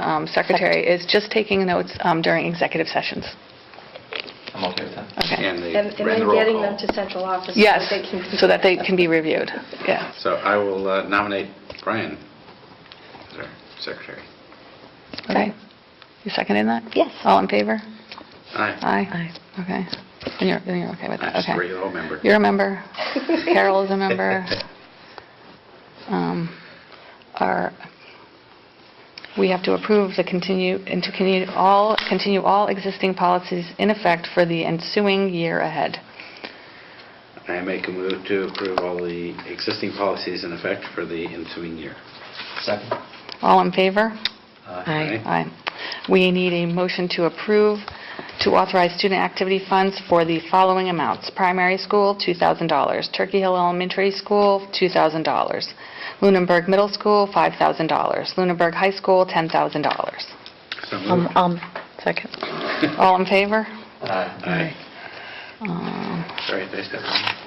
um, secretary is just taking notes um, during executive sessions. I'm okay with that. Okay. And they And and ran the then roll getting them call. to central office. so Yes, they can- so that they can be reviewed. Yeah. So I will uh, nominate Brian as our secretary. Okay. You seconding that? Yes. All in favor? Aye. Aye. Aye. Okay. And you're, and you're okay with I'm that? just a Okay. regular old member. You're a member. Carol is a member. Um, Our, we have to approve the continue, and to continue all, continue all existing policies in effect for the ensuing year ahead. I make a move to approve all the existing policies in effect for the ensuing year. Second? All in favor? Aye. Aye. We need a motion to approve, to authorize student activity funds for the following amounts. Primary school, $2,000. Turkey Hill Elementary School, $2,000. Lunenburg Middle School, $5,000. Lunenburg High School, $10,000. So Um, moved. um, second. All in favor? Aye. Aye. Um, Sorry, did I step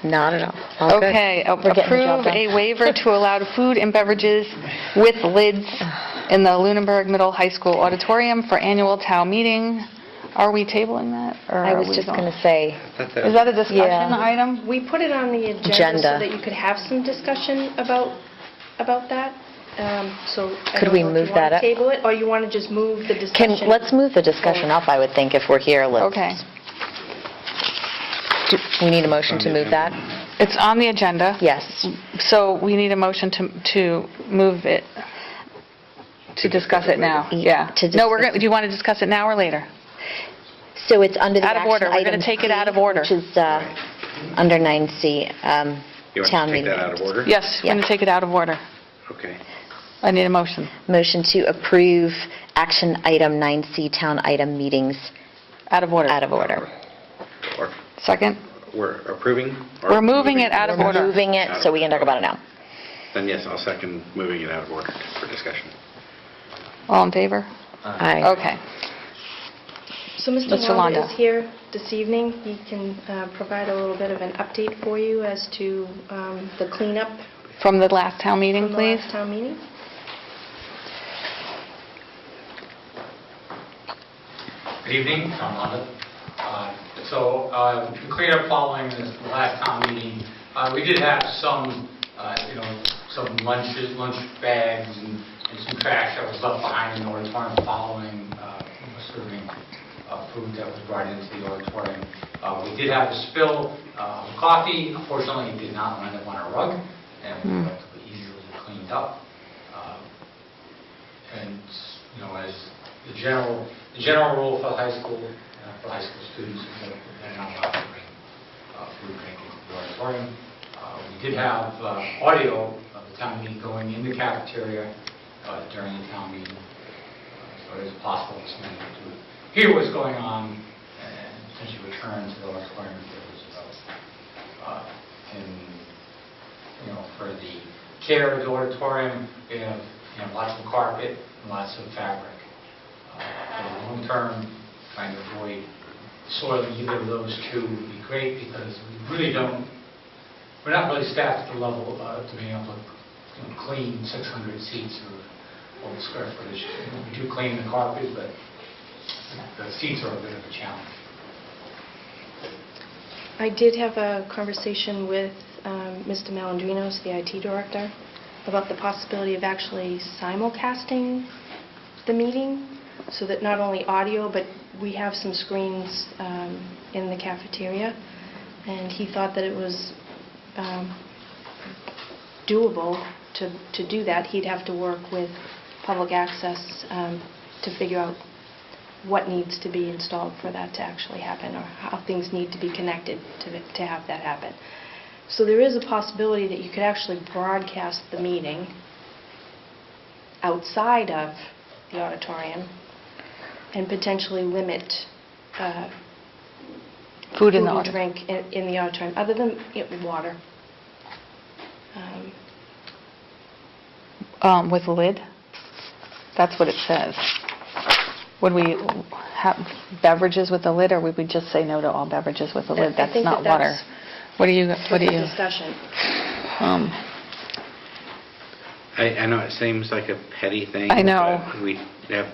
on Not at all. All good. Okay. a- We're getting the job Approve done. a waiver to allow food and beverages with lids in the Lunenburg Middle High School auditorium for annual town meeting. Are we tabling that? or I are was we just going- going to say, you? I thought Is that a discussion Yeah. item? We put it on the agenda so Agenda. that you could have some discussion about, about that. Um, So I Could don't we know if move you want that to up? table it, or you want to just move the discussion? can, let's move the discussion up, I would think, if we're here. Let's- Okay. do- We need a motion to move that? It's on the agenda. Yes. So we need a motion to to move it, to discuss it now. later. Yeah. To No, we're discuss going, do you want to discuss it now or later? So it's under the Out of action order. We're gonna item take it out of C, order. Which is uh, under 9C, um, You want town to take meeting. that out of order? Yes, we're going to Yeah. take it out of order. Okay. I need a motion. Motion to approve action item 9C, town item meetings Out of order. out of order. Or Second? We're approving? or We're moving it out of We're order. moving it, so we can talk about it now. Then yes, I'll second moving it out of order for discussion. All in favor? Uh-huh. Aye. Okay. So Mr. Mr. Wanda Londa. is here this evening. He can uh, provide a little bit of an update for you as to um, the cleanup From the last town meeting, from the please? last town meeting. Good evening, Tom Londa. Uh, So, uh, to clear up following this last town meeting, uh, we did have some, uh, you know, some lunches, lunch bags and and some trash that was left behind in the auditorium following uh, serving uh, food that was brought into the auditorium. Uh, We did have a spill uh, of coffee. Unfortunately, it did not land up on a rug and was relatively easily cleaned up. Uh, and, you know, as the general, the general rule for high school, uh, for high school students, is that they're not allowed to bring uh, food bank into the auditorium. Uh, We did have uh, audio of the town meeting going in the cafeteria uh, during the town meeting, Uh, so it is possible this man to hear what's going on and potentially return to the auditorium if there was a vote. Uh, And you know, for the care of the auditorium, we have, you know, lots of carpet and lots of fabric. Uh, For the long term, trying to avoid soiling either of those two would be great, because we really don't, we're not really staffed at the level uh, to being able to you know, clean 600 seats or, or square footage. You know, We do clean the carpet, but the seats are a bit of a challenge. I did have a conversation with um, Mr. Malandrinos, the IT director, about the possibility of actually simulcasting the meeting, so that not only audio, but we have some screens um, in the cafeteria, and he thought that it was um, doable to to do that. He'd have to work with public access um, to figure out what needs to be installed for that to actually happen, or how things need to be connected to to have that happen. So there is a possibility that you could actually broadcast the meeting outside of the auditorium and potentially limit uh, Food in the and order. drink in in the auditorium, other than you know, water. Um, Um, With lid? That's what it says. Would we have beverages with a lid, or would we just say no to all beverages with a I- I lid? That's think that not water. that's What do you, what do for you, Discussion. um, I, I know it seems like a petty thing. I know. But we have